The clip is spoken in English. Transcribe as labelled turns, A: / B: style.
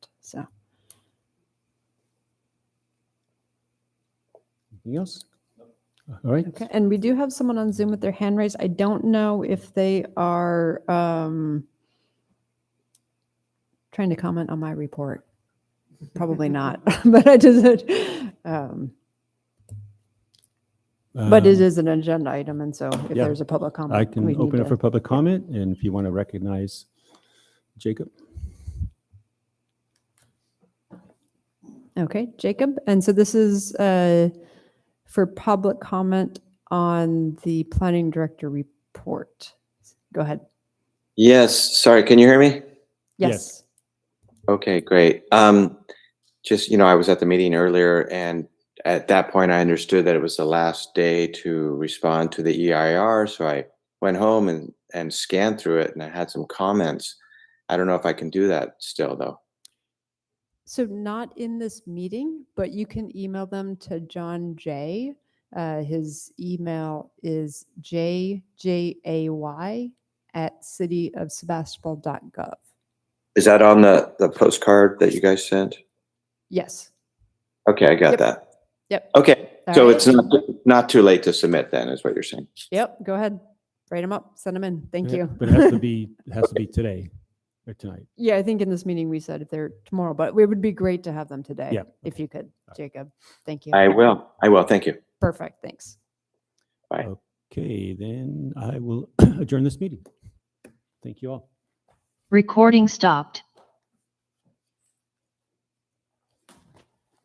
A: So
B: Anything else? All right,
A: okay, and we do have someone on Zoom with their hand raised. I don't know if they are um, trying to comment on my report. Probably not, but I just um, but it
B: um,
A: is an agenda item, and so if
B: yeah.
A: there's a public comment,
B: I
A: we
B: can
A: need
B: open it
A: to-
B: for public comment, and if you want to recognize Jacob.
A: Okay, Jacob. And so this is uh, for public comment on the planning director report. Go ahead.
C: Yes, sorry, can you hear me?
A: Yes.
B: Yes.
C: Okay, great. Um, just, you know, I was at the meeting earlier and at that point I understood that it was the last day to respond to the EIR, so I went home and, and scanned through it and I had some comments. I don't know if I can do that still though.
A: So not in this meeting, but you can email them to John Jay. Uh, His email is jjay at cityofsebastopol.gov.
C: Is that on the, the postcard that you guys sent?
A: Yes.
C: Okay, I got
A: Yep.
C: that.
B: Oh.
A: Yep.
C: Okay,
A: All
C: so
A: right.
C: it's not, not too late to submit then, is what you're saying?
A: Yep. Go ahead. Write them up. Send them in. Thank
B: Uh,
A: you.
B: But it has to be, it has to be today or tonight.
A: Yeah, I think in this meeting we said if they're tomorrow, but it would be great to have them today.
B: Yeah,
A: If you could, Jacob. Thank you.
C: I will, I will, thank you.
A: Perfect. Thanks.
B: Okay, then I will adjourn this meeting. Thank you all.
D: Recording stopped.